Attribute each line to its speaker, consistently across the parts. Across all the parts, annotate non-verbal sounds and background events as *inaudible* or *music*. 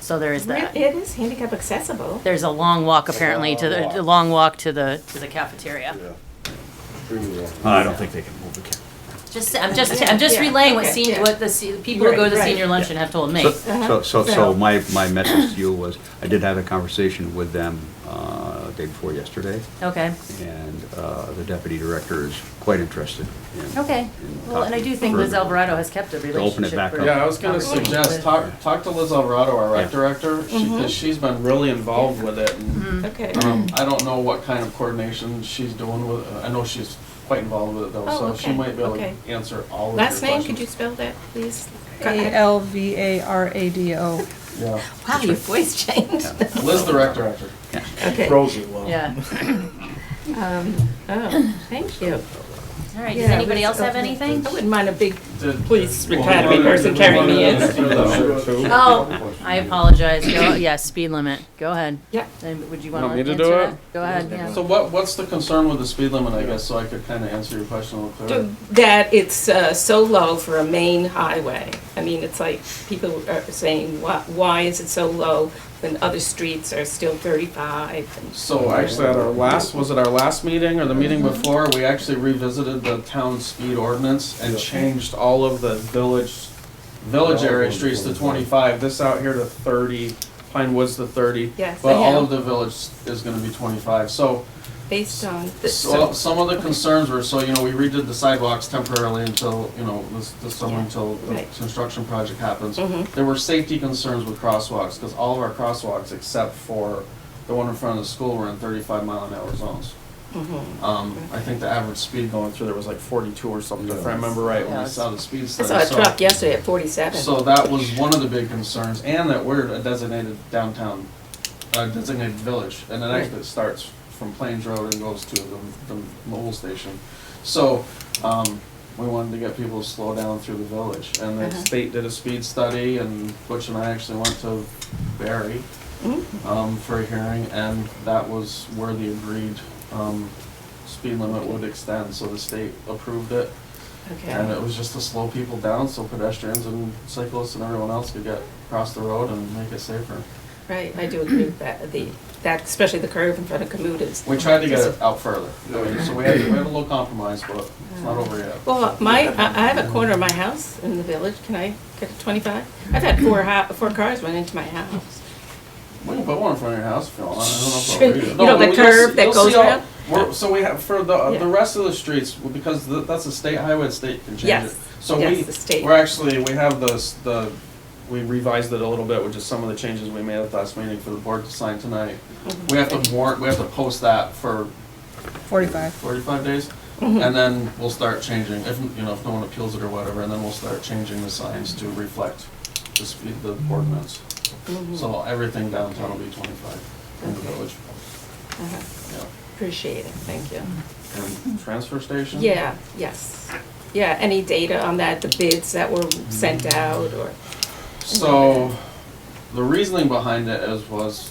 Speaker 1: So there is that.
Speaker 2: It is handicap accessible.
Speaker 1: There's a long walk apparently to
Speaker 3: long
Speaker 1: the,
Speaker 3: walk.
Speaker 1: a long walk to the, to the cafeteria.
Speaker 3: Yeah. Pretty well.
Speaker 4: I don't think they can move the camera.
Speaker 1: Just, I'm just, I'm just
Speaker 2: Yeah,
Speaker 1: relaying what
Speaker 2: okay,
Speaker 1: senior,
Speaker 2: yeah.
Speaker 1: what the se- people who
Speaker 2: Right,
Speaker 1: go to
Speaker 2: right.
Speaker 1: senior luncheon have told me. Uh-huh.
Speaker 4: So, so, so
Speaker 2: So-
Speaker 4: so my, my message to you was, I did have a conversation with them, uh, day before yesterday,
Speaker 1: Okay,
Speaker 4: and, uh, the deputy director is quite interested in.
Speaker 1: okay.
Speaker 4: in
Speaker 1: Well, and I
Speaker 4: talking
Speaker 1: do think Liz
Speaker 4: further.
Speaker 1: Alvarado has kept a
Speaker 4: it
Speaker 1: relationship.
Speaker 4: back
Speaker 1: for-
Speaker 4: up.
Speaker 5: Yeah, I was gonna
Speaker 1: conversation
Speaker 5: suggest,
Speaker 1: with-
Speaker 5: talk, talk to Liz Alvarado, our
Speaker 4: Yeah.
Speaker 5: rec director,
Speaker 2: Mm-hmm.
Speaker 5: because she's been really involved with it. and,
Speaker 2: Okay.
Speaker 5: um, I don't know what kind of coordination she's doing with, I know she's quite involved with it though,
Speaker 2: Oh,
Speaker 5: so she
Speaker 2: okay,
Speaker 5: might be able to
Speaker 2: okay.
Speaker 5: answer all of your
Speaker 2: Last
Speaker 5: questions.
Speaker 2: name, could you spell that, please?
Speaker 5: uh,
Speaker 6: A-L-V-A-R-A-D-O.
Speaker 5: Yeah,
Speaker 2: Wow, your voice
Speaker 5: *laughs*
Speaker 2: changed.
Speaker 5: Liz the rec director.
Speaker 2: Okay.
Speaker 5: Rosie, well.
Speaker 1: Yeah,
Speaker 2: Um, Oh, thank you.
Speaker 1: all right,
Speaker 2: Yeah,
Speaker 1: does anybody else
Speaker 2: let's go
Speaker 1: have
Speaker 2: to the-
Speaker 1: anything?
Speaker 2: I wouldn't mind a big
Speaker 5: Did-
Speaker 2: police
Speaker 5: Well,
Speaker 2: academy
Speaker 5: we
Speaker 2: person
Speaker 5: wanted-
Speaker 2: carrying me
Speaker 5: we wanted to
Speaker 2: in.
Speaker 5: do that too.
Speaker 1: Oh, I apologize, go, yeah, speed limit, go ahead.
Speaker 2: Yeah.
Speaker 1: Then Would you wanna
Speaker 7: Want me
Speaker 1: answer
Speaker 7: to do
Speaker 1: that?
Speaker 7: it?
Speaker 1: Go ahead, yeah.
Speaker 5: So what, what's the concern with the speed limit, I guess, so I could kinda answer your question a little clearer?
Speaker 2: That it's uh, so low for a main highway. I mean, it's like people are saying, why, why is it so low when other streets are still 35? And
Speaker 5: So actually, at our last, was it our last meeting or the meeting before, we actually revisited the town speed ordinance and
Speaker 3: Yeah.
Speaker 5: changed all of the village, village area streets to twenty-five, this out here to thirty, Pine Woods to thirty.
Speaker 2: Yes,
Speaker 5: But
Speaker 2: I
Speaker 5: all
Speaker 2: know.
Speaker 5: of the village is gonna be twenty-five, so,
Speaker 2: Based on
Speaker 5: so
Speaker 2: this,
Speaker 5: some of the concerns were, so, you know, we redid the sidewalks temporarily until, you know, this, this summer
Speaker 2: Yeah.
Speaker 5: until the
Speaker 2: Right.
Speaker 5: construction project happens.
Speaker 2: Mhm.
Speaker 5: There were safety concerns with crosswalks, cause all of our crosswalks except for the one in front of the school were in thirty-five mile an hour zones.
Speaker 2: mm-hmm.
Speaker 5: Um, I think the average speed going through there was like forty-two or something, if I remember right, when I
Speaker 1: Yeah.
Speaker 5: saw the speed
Speaker 2: I
Speaker 5: study.
Speaker 2: saw a
Speaker 5: So-
Speaker 2: truck yesterday at 47.
Speaker 5: So that was one of the big concerns, and that we're a designated downtown, uh, designated village, and it actually starts from Plains Road and goes to the, the mobile station. So, um, we wanted to get people to slow down through the village, and the
Speaker 2: Uh-huh.
Speaker 5: state did a speed study, and Butch and I actually went to Barry,
Speaker 2: Mhm.
Speaker 5: um, for a hearing, and that was where the agreed, um, speed limit would extend, so the state approved it. And
Speaker 2: Okay.
Speaker 5: it was just to slow people down so pedestrians and cyclists and everyone else could get across the road and make it safer.
Speaker 2: Right, I do agree with that, the, that, especially the curve in front of Kamuta's.
Speaker 5: We tried to get it out further, I mean, so we had, we had a little compromise, but it's not over yet.
Speaker 2: Well, my, I I have a corner of my house in the village, can I get a 25? I've had four, hou- four cars run into my house.
Speaker 5: We can put one in front of your house if you want, I
Speaker 2: Sure.
Speaker 5: don't know if I'll read it.
Speaker 2: You
Speaker 5: No,
Speaker 2: know, the
Speaker 5: but you'll
Speaker 2: curve
Speaker 5: see-
Speaker 2: that
Speaker 5: you'll
Speaker 2: goes
Speaker 5: see all-
Speaker 2: around?
Speaker 5: We're, so we have, for the,
Speaker 2: Yeah.
Speaker 5: the rest of the streets, well, because th- that's a state highway, the state can change it.
Speaker 2: Yes.
Speaker 5: So
Speaker 2: Yes,
Speaker 5: we-
Speaker 2: the state.
Speaker 5: We're actually, we have the, s- the, we revised it a little bit, which is some of the changes we made at the last meeting for the board to sign tonight. We have to warrant, we have to post that for
Speaker 6: 45.
Speaker 5: 45 days, and then we'll start changing, if, you know, if no one appeals it or whatever, and then we'll start changing the signs to reflect the speed, the ordinance.
Speaker 2: Mm-hmm.
Speaker 5: So everything downtown will be 25 in the
Speaker 2: Okay.
Speaker 5: village,
Speaker 2: Uh-huh.
Speaker 5: yeah.
Speaker 2: Appreciate it, thank you.
Speaker 5: And transfer station?
Speaker 2: Yeah, yes. Yeah, any data on that, the bids that were sent out or?
Speaker 5: So, the reasoning behind it is was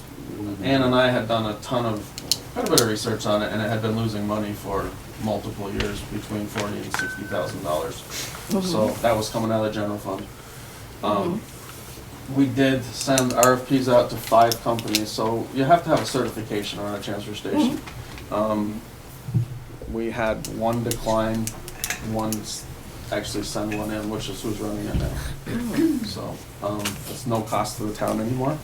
Speaker 5: Ann and I had done a ton of, quite a bit of research on it, and it had been losing money for multiple years, between forty and sixty thousand dollars. So that was coming out of the general fund. Um, We did send RFPs out to five companies, so you have to have a certification on a transfer station. Um, We had one decline, one s- actually send one in, which is who's running it now. So, um, it's no cost to the town anymore.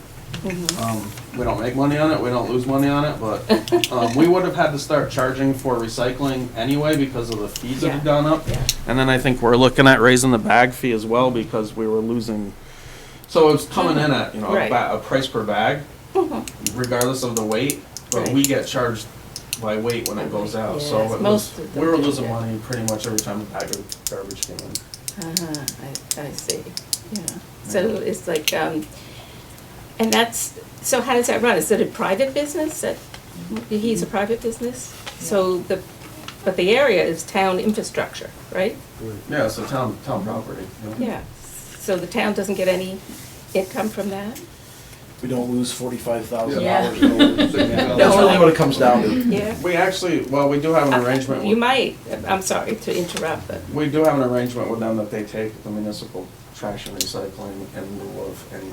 Speaker 2: mm-hmm,
Speaker 5: Um, we don't make money on it, we don't lose money on it, but, um, we would have had to start charging for recycling anyway because of the fees that
Speaker 2: Yeah.
Speaker 5: have gone up.
Speaker 2: Yeah.
Speaker 5: And then I think we're looking at raising the bag fee as well because we were losing. So it's coming in at, you know, a,
Speaker 2: Right.
Speaker 5: ba- a price per bag,
Speaker 2: *laughs*
Speaker 5: regardless of the weight, but we
Speaker 2: Right.
Speaker 5: get charged by weight when it goes out, so
Speaker 2: Yes,
Speaker 5: it was,
Speaker 2: most of them
Speaker 5: we were
Speaker 2: do
Speaker 5: losing
Speaker 2: that.
Speaker 5: money pretty much every time a bag of garbage came in.
Speaker 2: Uh-huh, I, I see, yeah. So it's like, um, and that's, so how does that run? Is it a private business that, he's a private business? So the, but the area is town infrastructure, right?
Speaker 5: Yeah, so town, town property. you know.
Speaker 2: Yeah. So the town doesn't get any income from that?
Speaker 8: we don't lose forty-five thousand
Speaker 1: Yeah.
Speaker 8: dollars. That's really what it comes down to.
Speaker 2: Yeah. Uh,
Speaker 5: We actually, well, we do have an arrangement,
Speaker 2: You
Speaker 5: with-
Speaker 2: might, I'm sorry to interrupt, but,
Speaker 5: we do have an arrangement with them that they take the municipal trash and recycling in lieu of any